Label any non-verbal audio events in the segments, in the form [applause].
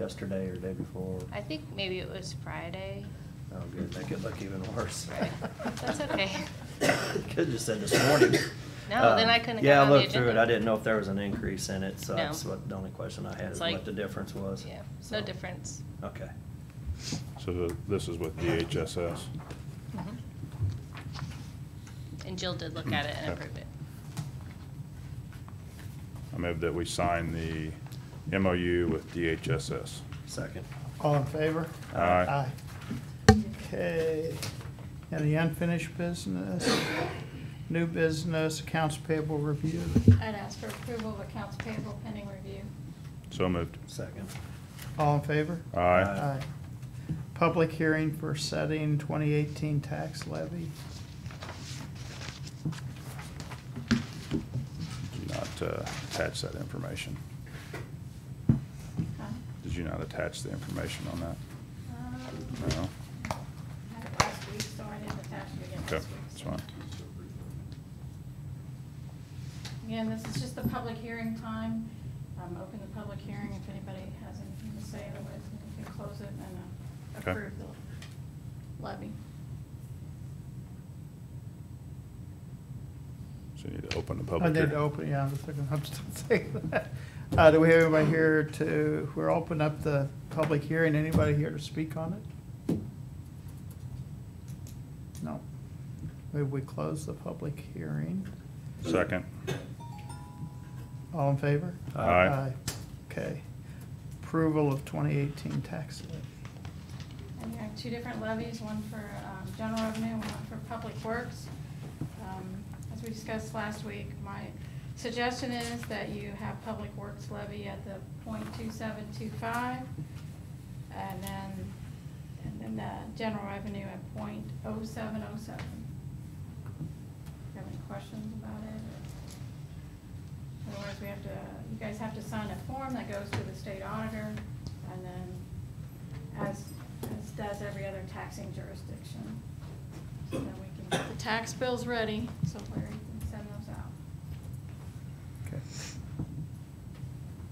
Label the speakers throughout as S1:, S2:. S1: yesterday or day before.
S2: I think maybe it was Friday.
S1: Oh, good, that could look even worse.
S2: Right. That's okay.
S1: [laughs] Could've just said this morning.
S2: No,
S1: Um,
S2: then I couldn't have
S1: Yeah,
S2: got
S1: I
S2: on the
S1: looked through it,
S2: agenda.
S1: I didn't know if there was an increase in it, so
S2: No.
S1: that's what, the only question I had
S2: It's
S1: is
S2: like-
S1: what the difference was.
S2: Yeah, it's
S1: So,
S2: no difference.
S1: Okay.
S3: So the- this is with DHSS.
S2: Mhm. And Jill did look at it and
S3: Okay.
S2: approve it.
S3: I move that we sign the MOU with DHSS.
S1: Second.
S4: All in favor?
S3: Aye.
S4: Okay. Any unfinished business? New business, accounts payable review.
S5: I'd ask for approval of accounts payable pending review.
S3: So moved.
S1: Second.
S4: All in favor?
S3: Aye.
S1: Aye.
S4: Public hearing for setting 2018 tax levy.
S3: Did you not uh, attach that information?
S5: Huh?
S3: Did you not attach the information on that?
S5: Um,
S3: No?
S5: I had it last week, so I didn't attach it again
S3: Okay,
S5: this week.
S3: that's fine.
S5: Again, this is just the public hearing time. Um, Open the public hearing if anybody has anything to say, otherwise we can close it and uh,
S3: Okay.
S5: approve the levy.
S3: So you need to open the
S4: I
S3: public hearing.
S4: did open, yeah, I'm just looking, I'm still thinking that. Uh, do we have anybody here to, we're open up the public hearing, anybody here to speak on it? No. Maybe we close the public hearing.
S3: Second.
S4: All in favor?
S1: Aye.
S4: Okay. Approval of twenty eighteen tax levy.
S5: And you have two different levies, one for um, general revenue and one for public works. Um, As we discussed last week, my suggestion is that you have public works levy at the point two seven two five, and then, and then the general revenue at point oh seven oh seven. Have any questions about it? Otherwise, we have to, you guys have to sign a form that goes to the state auditor, and then, as, as does every other taxing jurisdiction. So then we can get the tax bills ready, so Larry can send those out.
S4: Okay.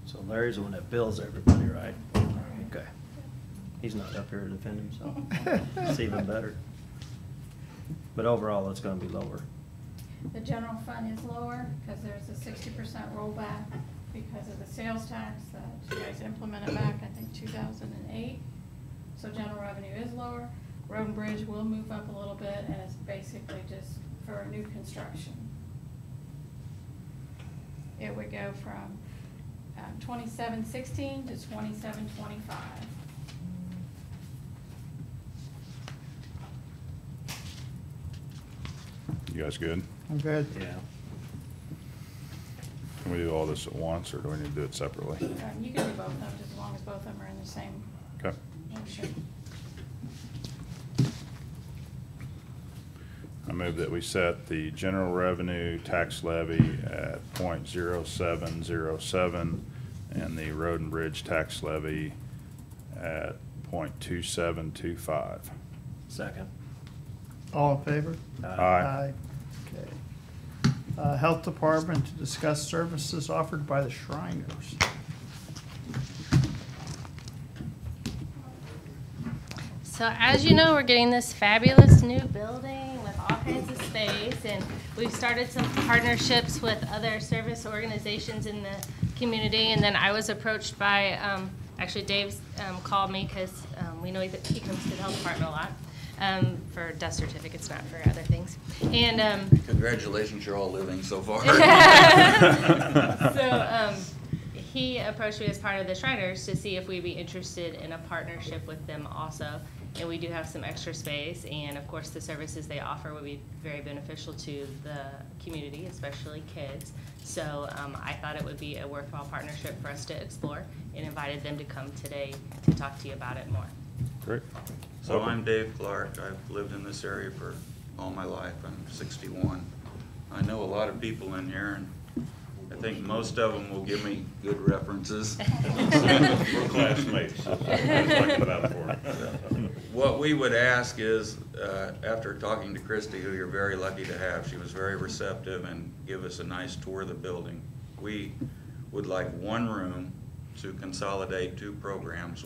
S1: So Larry's the one that bills everybody, right?
S5: Right.
S1: Okay. He's not up here to defend himself. It's even better. But overall, it's gonna be lower.
S5: The general fund is lower, because there's a sixty percent rollback because of the sales tax that you guys implemented back, I think, two thousand and eight. So general revenue is lower. Road and bridge will move up a little bit, and it's basically just for new construction. It would go from um, twenty-seven sixteen to twenty-seven twenty-five.
S3: You guys good?
S4: I'm good.
S1: Yeah.
S3: Can we do all this at once, or do we need to do it separately?
S5: Um, You can do both of them, just as long as both of them are in the same
S3: Okay.
S5: motion.
S3: I move that we set the general revenue tax levy at point zero seven zero seven and the road and bridge tax levy at point two seven two five.
S1: Second. Uh,
S4: All in favor?
S3: Aye.
S4: Okay. Uh, Health Department to discuss services offered by the Shriners.
S2: So as you know, we're getting this fabulous new building with all kinds of space, and we've started some partnerships with other service organizations in the community. And then I was approached by, um, actually Dave's um, called me because we know that he comes to the health department a lot um, for death certificates, not for other things. And um,
S6: Congratulations, you're all living
S2: [laughs]
S6: so far. [laughs]
S2: so um, he approached me as part of the Shriners to see if we'd be interested in a partnership with them also. And we do have some extra space, and of course, the services they offer would be very beneficial to the community, especially kids. So um, I thought it would be a worthwhile partnership for us to explore, and invited them to come today to talk to you about it more.
S3: Great.
S6: So I'm Dave Clark. I've lived in this area for all my life. I'm 61. I know a lot of people in here, and I think most of them will give me good references.
S3: [laughs]
S6: [laughs]
S3: We're classmates. That's what I'm talking about [laughs] for.
S6: What we would ask is, uh, after talking to Christie, who you're very lucky to have, she was very receptive and give us a nice tour of the building. We would like one room to consolidate two programs,